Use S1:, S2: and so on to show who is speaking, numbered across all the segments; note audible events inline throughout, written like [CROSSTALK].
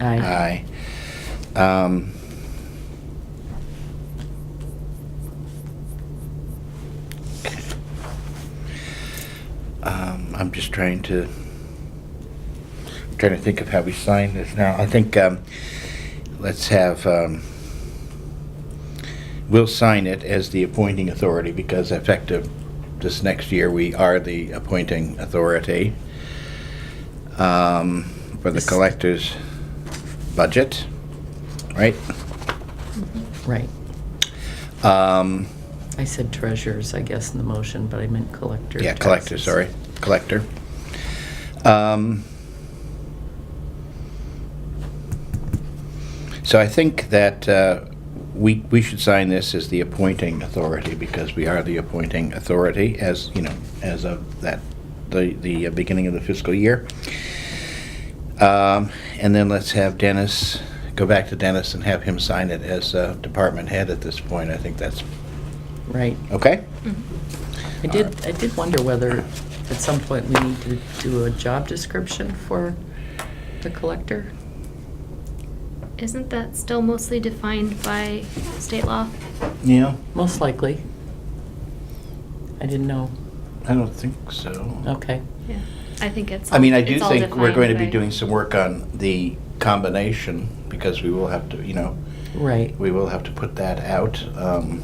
S1: Aye.
S2: Aye. Um, um, I'm just trying to, trying to think of how we sign this now. I think, um, let's have, um, we'll sign it as the appointing authority because effective this next year, we are the appointing authority um, for the
S1: This-
S2: collector's budget, right?
S1: Right.
S2: Um,
S1: I said treasurers, I guess, in the motion, but I meant collector. of
S2: Yeah, collector,
S1: taxes.
S2: sorry, collector. Um, So I think that uh, we, we should sign this as the appointing authority, because we are the appointing authority as, you know, as of that, the, the beginning of the fiscal year. Um, And then let's have Dennis, go back to Dennis and have him sign it as uh, department head at this point. I think that's,
S1: Right.
S2: okay?
S1: I
S3: Mm-hmm.
S1: did, I did wonder whether at some point we need to do a job description for the collector?
S3: Isn't that still mostly defined by state law?
S2: Yeah,
S1: Most likely. I didn't know.
S2: I don't think so.
S1: Okay.
S3: Yeah, I think it's.
S2: I mean, I
S3: all-
S2: do
S3: it's all
S2: think we're going to be
S3: defined by-
S2: doing some work on the combination, because we will have to, you know,
S1: Right.
S2: we will have to put that out um,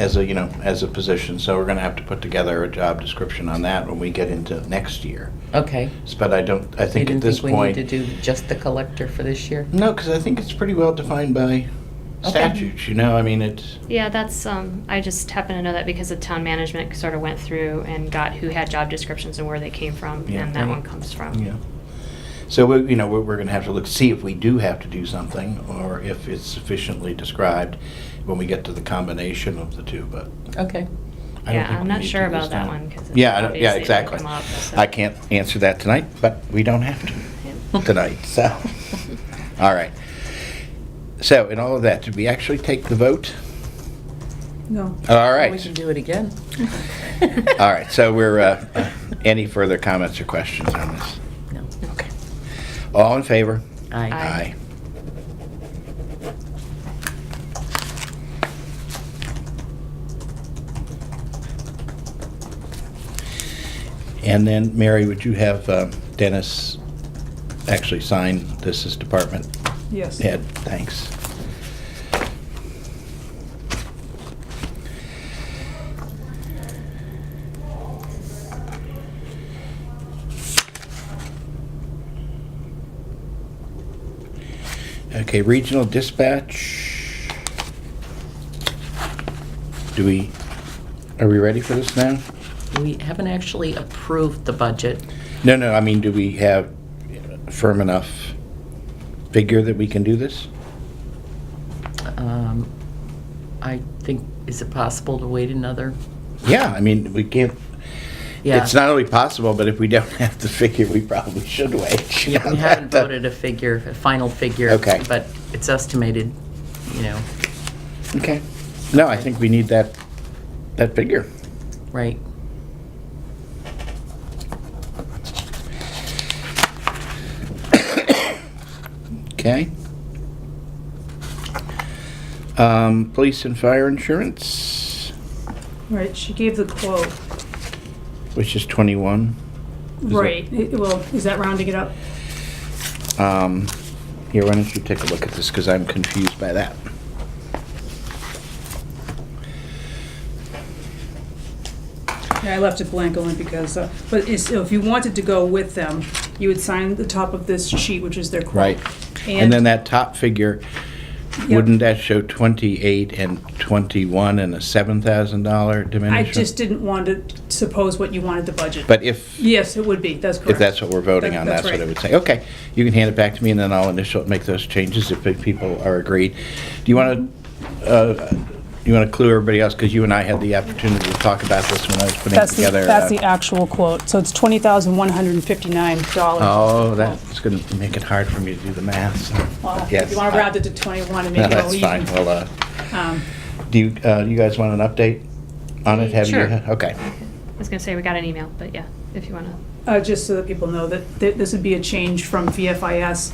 S2: as a, you know, as a position, so we're gonna have to put together a job description on that when we get into next year.
S1: Okay.
S2: S- But I don't, I
S1: You
S2: think at
S1: didn't
S2: this
S1: think we need
S2: point.
S1: to do just the collector for this year?
S2: No, because I think it's pretty well defined by
S1: Okay.
S2: statutes, you know, I mean, it's,
S3: Yeah, that's, um, I just happen to know that because the town management sort of went through and got who had job descriptions and where they came from,
S2: Yeah.
S3: and that one comes from.
S2: yeah. So, we- you know, we're, we're gonna have to look, see if we do have to do something, or if it's sufficiently described when we get to the combination of the two, but.
S1: Okay.
S2: I don't
S3: Yeah,
S2: think
S3: I'm
S2: we
S3: not
S2: need
S3: sure
S2: to this
S3: about that
S2: time.
S3: one, because.
S2: Yeah, I don't- yeah, exactly. I can't answer that tonight, but we don't have
S3: [LAUGHS]
S2: to tonight, so, all right. So, in all of that, did we actually take the vote?
S4: No.
S2: All
S1: We
S2: right,
S1: can do it again.
S2: all right, so we're, uh, uh, any further comments or questions on this?
S1: [LAUGHS] No.
S2: Okay. All in favor?
S1: Aye.
S3: Aye.
S2: And then, Mary, would you have um, Dennis actually sign this as department
S4: Yes.
S2: Ed, thanks. Okay, regional dispatch. Do we, are we ready for this now?
S1: We haven't actually approved the budget.
S2: No, no, I mean, do we have firm enough figure that we can do this?
S1: Um, I think, is it possible to wait another?
S2: Yeah, I mean, we can't,
S1: Yeah.
S2: It's not only possible, but if we don't [LAUGHS] have the figure, we probably should wait. uh,
S1: Yeah,
S2: [LAUGHS]
S1: we haven't voted a figure, a final figure.
S2: Okay.
S1: But it's estimated, you know,
S2: Okay. No, I think we need that, that figure.
S1: right?
S2: Okay. Um, police and fire insurance,
S4: Right, she gave the quote.
S2: which is twenty-one. that-
S4: Right, it- well, is that rounding it up?
S2: Um, here, why don't you take a look at this, because I'm confused by that.
S4: Yeah, I left it blank only because, uh, but it's- if you wanted to go with them, you would sign the top of this sheet, which is their quote.
S2: Right. And then that top figure,
S4: Yep.
S2: wouldn't that show twenty-eight and twenty-one and a seven thousand dollar
S4: I
S2: diminution?
S4: just didn't want to suppose what you wanted the budget.
S2: But if.
S4: Yes, it would be, that's correct.
S2: If that's what we're voting
S4: That-
S2: on,
S4: that's
S2: that's what I
S4: right.
S2: would say. Okay, you can hand it back to me, and then I'll initial, make those changes if the people are agreed. Do you want to, you want to clue everybody else, because you and I had the opportunity to talk about this when I was putting
S4: That's the,
S2: together.
S4: that's
S2: uh,
S4: the actual quote, so it's twenty thousand one hundred and fifty-nine dollars.
S2: Oh, that's going to make it hard for me to do the math, so.
S4: If
S2: yes,
S4: you want
S2: I-
S4: to round it to twenty-one and
S2: No,
S4: make it
S2: [LAUGHS]
S4: all
S2: that's
S4: even.
S2: fine, well, uh,
S4: Um,
S2: do you, uh, you guys want an update on it? Have you-
S3: Sure.
S2: Okay,
S3: I was gonna say, we got an email, but yeah, if you wanna.
S4: Uh, just so that people know that th- this would be a change from VFIS